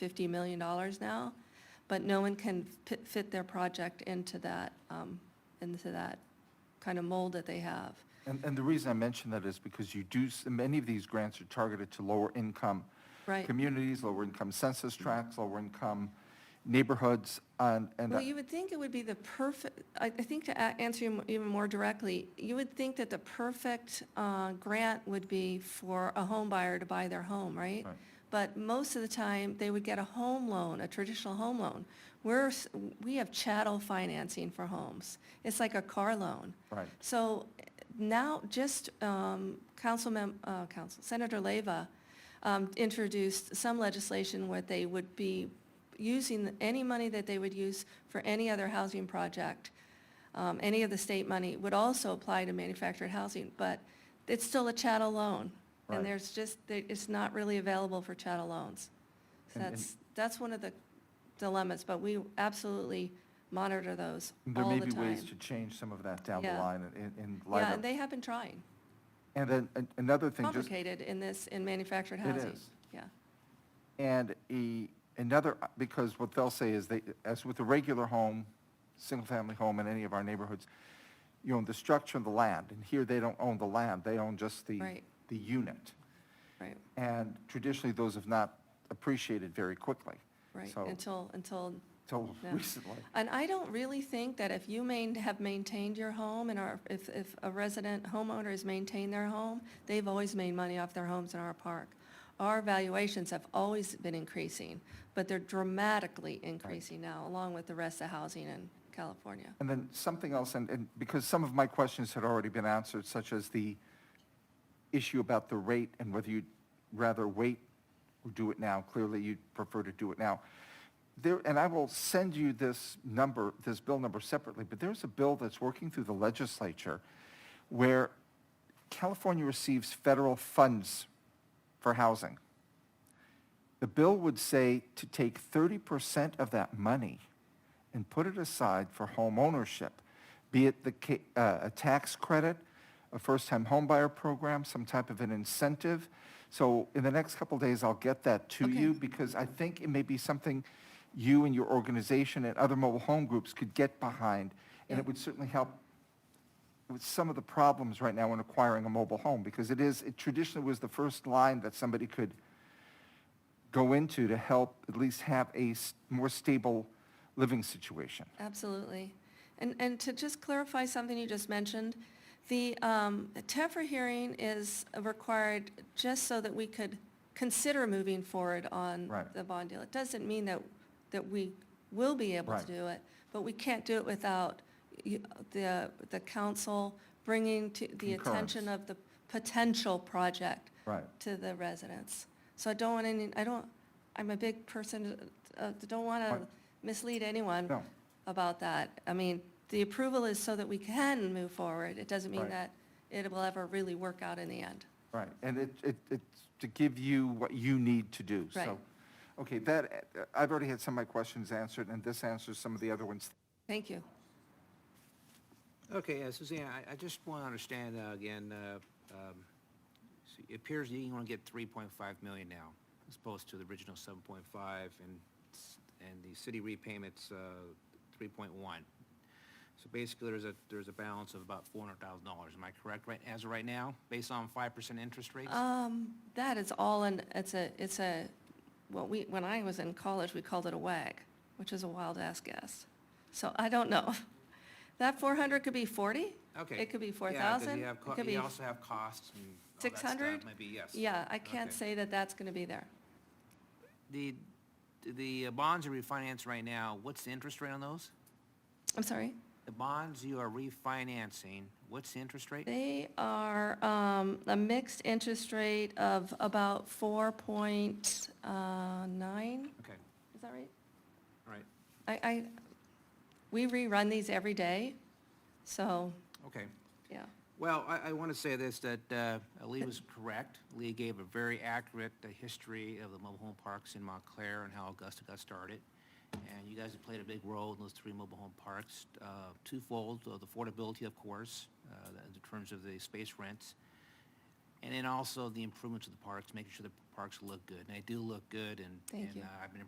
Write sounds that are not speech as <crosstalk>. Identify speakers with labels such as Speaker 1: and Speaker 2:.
Speaker 1: $50 million now, but no one can fit- fit their project into that, um, into that kind of mold that they have.
Speaker 2: And, and the reason I mention that is because you do, s- many of these grants are targeted to lower income
Speaker 1: Right.
Speaker 2: communities, lower income census tracts, lower income neighborhoods, and, and.
Speaker 1: Well,
Speaker 2: I-
Speaker 1: you would think it would be the perfect, I, I think to a- answer you m- even more directly, you would think that the perfect uh, grant would be for a home buyer to buy their home, right?
Speaker 2: Right.
Speaker 1: But most of the time, they would get a home loan, a traditional home loan. We're, s- we have chattel financing for homes. It's like a car loan.
Speaker 2: Right.
Speaker 1: So eh, now, just um, Councilmem, uh, Council, Senator Leyva um, introduced some legislation where they would be using any money that they would use for any other housing project, um, any of the state money would also apply to manufactured housing, but it's still a chattel loan.
Speaker 2: Right.
Speaker 1: And there's just, there- it's not really available for chattel loans. So
Speaker 2: And- and-
Speaker 1: that's, that's one of the dilemmas, but we absolutely monitor those
Speaker 2: There
Speaker 1: all the
Speaker 2: may
Speaker 1: time.
Speaker 2: be ways to change some of that down the
Speaker 1: Yeah.
Speaker 2: line in, in light
Speaker 1: Yeah, and
Speaker 2: of.
Speaker 1: they have been trying.
Speaker 2: And then an- another thing, just,
Speaker 1: Complicated in this, in manufactured
Speaker 2: It
Speaker 1: housing.
Speaker 2: is.
Speaker 1: Yeah,
Speaker 2: and a, another, because what they'll say is they, as with a regular home, single-family home in any of our neighborhoods, you own the structure and the land, and here they don't own the land, they own just the,
Speaker 1: Right.
Speaker 2: the unit.
Speaker 1: right,
Speaker 2: And traditionally, those have not appreciated very quickly.
Speaker 1: right,
Speaker 2: So,
Speaker 1: until, until,
Speaker 2: till
Speaker 1: yeah.
Speaker 2: recently.
Speaker 1: and I don't really think that if you main, have maintained your home and are, if, if a resident homeowner has maintained their home, they've always made money off their homes in our park. Our valuations have always been increasing, but they're dramatically increasing now, along with the rest of housing in California.
Speaker 2: And then something else, and, and because some of my questions had already been answered, such as the issue about the rate and whether you'd rather wait or do it now. Clearly, you'd prefer to do it now. There, and I will send you this number, this bill number separately, but there's a bill that's working through the legislature where California receives federal funds for housing. The bill would say to take 30% of that money and put it aside for home ownership, be it the, ca- uh, a tax credit, a first-time homebuyer program, some type of an incentive. So in the next couple days, I'll get that to
Speaker 1: Okay.
Speaker 2: you because I think it may be something you and your organization and other mobile home groups could get behind. And it
Speaker 1: Yeah.
Speaker 2: would certainly help with some of the problems right now in acquiring a mobile home because it is, it traditionally was the first line that somebody could go into to help at least have a s- more stable living situation.
Speaker 1: Absolutely. And, and to just clarify something you just mentioned, the um, TEFRA hearing is required just so that we could consider moving forward on
Speaker 2: Right.
Speaker 1: the bond deal. It doesn't mean that, that we will be able to
Speaker 2: Right.
Speaker 1: do it, but we can't do it without you- the, the council bringing to the attention
Speaker 2: Concurrence.
Speaker 1: of the potential project
Speaker 2: Right.
Speaker 1: to the residents. So I don't want any, I don't, I'm a big person, uh, don't want to
Speaker 2: Right.
Speaker 1: mislead anyone
Speaker 2: No.
Speaker 1: about that. I mean, the approval is so that we can move forward. It doesn't mean
Speaker 2: Right.
Speaker 1: that it will ever really work out in the end.
Speaker 2: Right, and it, it, it's to give you what you need to do, so.
Speaker 1: Right.
Speaker 2: Okay, that, I've already had some of my questions answered, and this answers some of the other ones.
Speaker 1: Thank you.
Speaker 3: Okay, uh, Suzanne, I, I just want to understand uh, again, uh, um, so it appears you want to get 3.5 million now, as opposed to the original 7.5, and, s- and the city repayments, uh, 3.1. So basically, there's a, there's a balance of about $400,000, am I correct, right, as of right now, based on 5% interest rates?
Speaker 1: Um, that is all in, it's a, it's a, well, we, when I was in college, we called it a WAG, which is a wild-ass guess. So I don't know. <laughs> That 400 could be 40?
Speaker 3: Okay.
Speaker 1: It could be
Speaker 3: Yeah, 'cause
Speaker 1: 4,000?
Speaker 3: you have co-
Speaker 1: It could
Speaker 3: You
Speaker 1: be
Speaker 3: also have costs and all that stuff,
Speaker 1: 600?
Speaker 3: Maybe, yes.
Speaker 1: Yeah, I can't
Speaker 3: Okay.
Speaker 1: say that that's going to be there.
Speaker 3: The, the uh, bonds are refinanced right now, what's the interest rate on those?
Speaker 1: I'm sorry?
Speaker 3: The bonds you are refinancing, what's the interest rate?
Speaker 1: They are um, a mixed interest rate of about 4.9, is that
Speaker 3: Okay,
Speaker 1: right?
Speaker 3: all right,
Speaker 1: I, I, we rerun these every day, so,
Speaker 3: okay.
Speaker 1: yeah.
Speaker 3: Well, I, I want to say this, that uh, Lee was correct. Lee gave a very accurate uh, history of the mobile home parks in Montclair and how Augusta got started. And you guys have played a big role in those three mobile home parks, uh, twofold, uh, the affordability, of course, uh, in terms of the space rents, and then also the improvements of the parks, making sure the parks look good. And they do look good, and
Speaker 1: Thank
Speaker 3: and,
Speaker 1: you.
Speaker 3: uh, I've been